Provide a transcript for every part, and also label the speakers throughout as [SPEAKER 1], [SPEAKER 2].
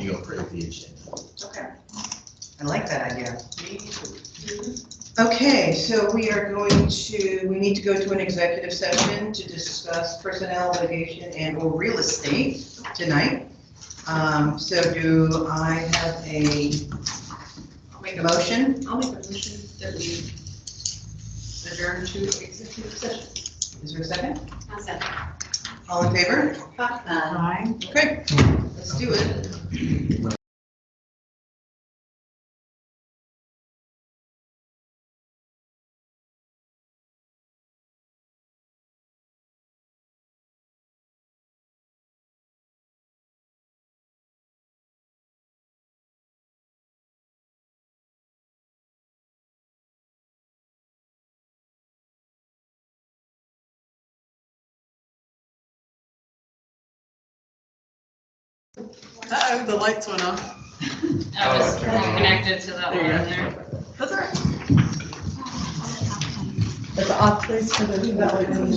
[SPEAKER 1] you approve the agenda.
[SPEAKER 2] Okay.
[SPEAKER 3] I like that idea.
[SPEAKER 2] Me too.
[SPEAKER 3] Okay, so we are going to, we need to go to an executive session to discuss personnel litigation and or real estate tonight. Um, so do I have a
[SPEAKER 2] I'll make a,
[SPEAKER 3] motion?
[SPEAKER 2] I'll make a motion that we adjourn to executive session.
[SPEAKER 3] Is there a second?
[SPEAKER 2] How's that?
[SPEAKER 3] All in favor?
[SPEAKER 2] Bye.
[SPEAKER 3] Okay, let's do it.
[SPEAKER 4] Uh-oh, the lights went off.
[SPEAKER 5] I was connected to that one in there.
[SPEAKER 4] That's all right.
[SPEAKER 6] It's off place for the development.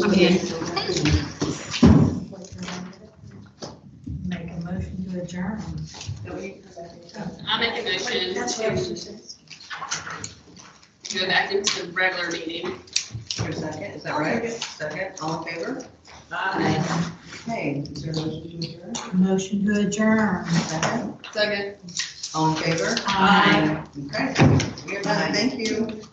[SPEAKER 6] Make a motion to adjourn.
[SPEAKER 5] I'll make a motion
[SPEAKER 2] That's what I was
[SPEAKER 5] to
[SPEAKER 2] just saying.
[SPEAKER 5] go back into regular meeting.
[SPEAKER 3] Is there a second? Is that right? Second, all in favor?
[SPEAKER 5] Aye.
[SPEAKER 3] Okay, is there a
[SPEAKER 6] Motion
[SPEAKER 3] motion to adjourn?
[SPEAKER 6] to adjourn.
[SPEAKER 3] Second,
[SPEAKER 5] Second.
[SPEAKER 3] all in favor?
[SPEAKER 6] Aye.
[SPEAKER 3] Okay, we are done, thank you.